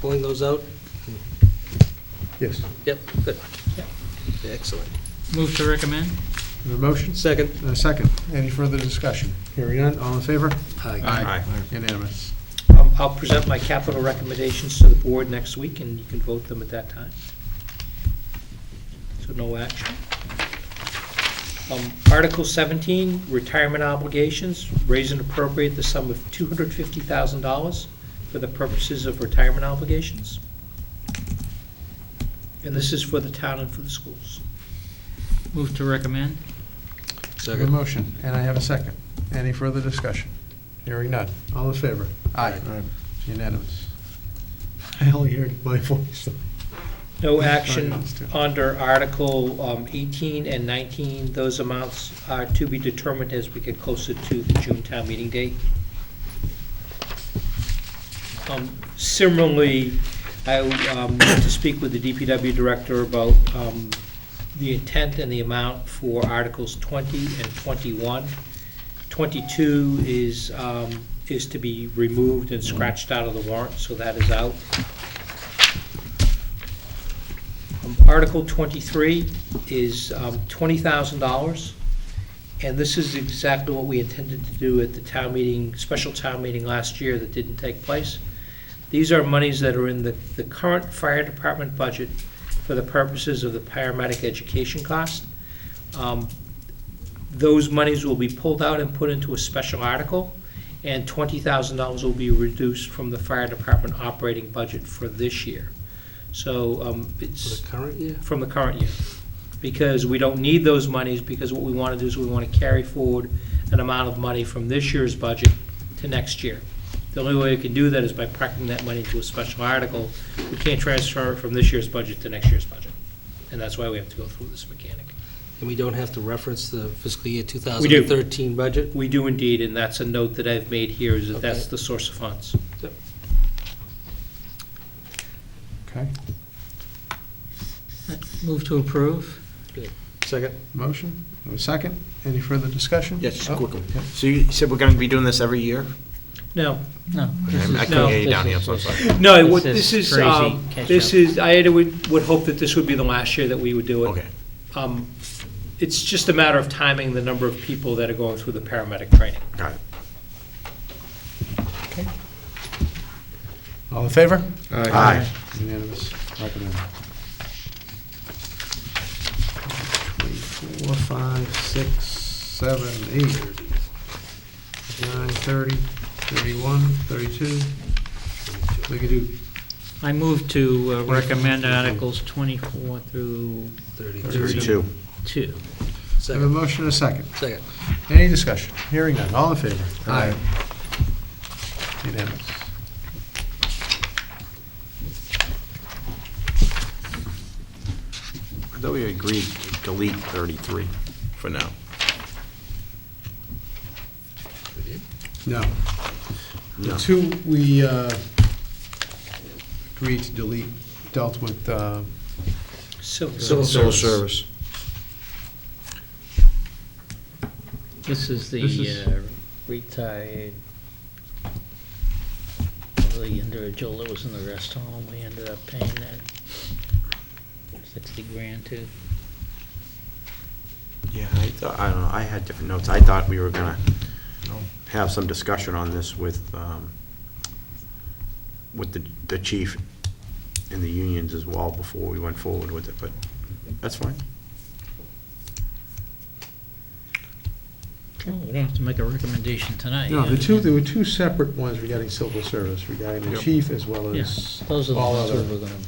pulling those out? Yes. Yep, good. Excellent. Move to recommend? A motion? Second? And a Uh, second. Any further discussion? Hearing none, all in favor? Aye. Unanimous. Um, I'll present my capital recommendations to the board next week, and you can vote them at that time. So no action. Um, Article 17, retirement obligations, raise and appropriate the sum of $250,000 for the purposes of retirement obligations. And this is for the town and for the schools. Move to recommend? I have a motion, and I have a second. Any further discussion? Hearing none. All in favor? Aye. It's Unanimous. I only heard my voice. No Yeah, action finance too. under Article um, 18 and 19. Those amounts are to be determined as we get closer to the June town meeting date. Um, Similarly, I um, want to speak with the DPW director about um, the intent and the amount for Articles 20 and 21. 22 is, um, is to be removed and scratched out of the warrant, so that is out. Um, Article 23 is um, $20,000, and this is exactly what we intended to do at the town meeting, special town meeting last year that didn't take place. These are monies that are in the, the current fire department budget for the purposes of the paramedic education cost. Um, Those monies will be pulled out and put into a special article, and $20,000 will be reduced from the fire department operating budget for this year. So um, For it's the current year? from the current year, because we don't need those monies, because what we want to do is we want to carry forward an amount of money from this year's budget to next year. The only way we can do that is by packing that money into a special article. We can't transfer it from this year's budget to next year's budget, and that's why we have to go through this mechanic. And we don't have to reference the fiscal year We do. 2013 budget? We do indeed, and that's a note that I've made here, is that that's Okay. the source of funds. Okay. Move to approve? Second? Motion, and a second. Any further discussion? Yes, just a Oh, quick one. yep. So you said we're going to be doing this every year? No, No. this I is- No. couldn't hear you down here, I'm so sorry. no, This what- is this is, crazy um, catch this up. is, I had- would, would hope that this would be the last year that we would do it. Okay. Um, It's just a matter of timing the number of people that are going through the paramedic training. Got it. All in favor? Aye. Unanimous, recommend. Four, five, six, seven, eight, nine, thirty, thirty-one, thirty-two. We could do I move to uh, recommend Articles 24 through 32. I have 2. a Second? motion and a second. Second. Any discussion? Hearing none. All in favor? Aye. Unanimous. I thought we agreed to delete 33 for now. No. The No. two we uh, agreed to delete dealt with uh, Civil Civil service. Civil service. This is This the is- uh, retired the individual that was in the rest home. We ended up paying that 60 grand to. Yeah, I thought, I don't know, I had different notes. I thought we were going to have some discussion on this with, um, with the, the chief and the unions as well before we went forward with it, but that's fine. Oh, We don't have to make a recommendation tonight. No, yeah. the two, there were two separate ones regarding civil service, regarding the Yep. chief as well Yeah, as Those are the all ones other. that we're gonna,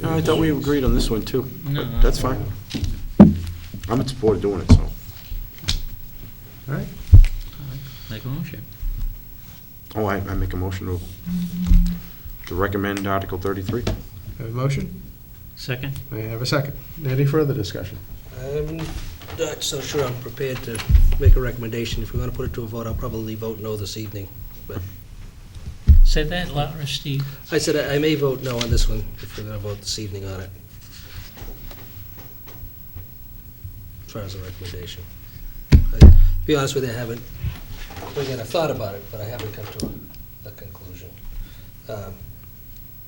No, I thought we agreed on this one too, No, but that's fine. I'm in support of doing it, so. All right, make a motion. Oh, I, I make a motion to, to recommend Article 33. have a motion? Second? I have a second. Any further discussion? I'm not so sure I'm prepared to make a recommendation. If we're going to put it to a vote, I'll probably vote no this evening. Say that louder, Steve. I said I I may vote no on this one if we're going to vote this evening on it. As far as a recommendation. I- To be honest with you, I haven't, again, I thought about it, but I haven't come to a- a conclusion. Um,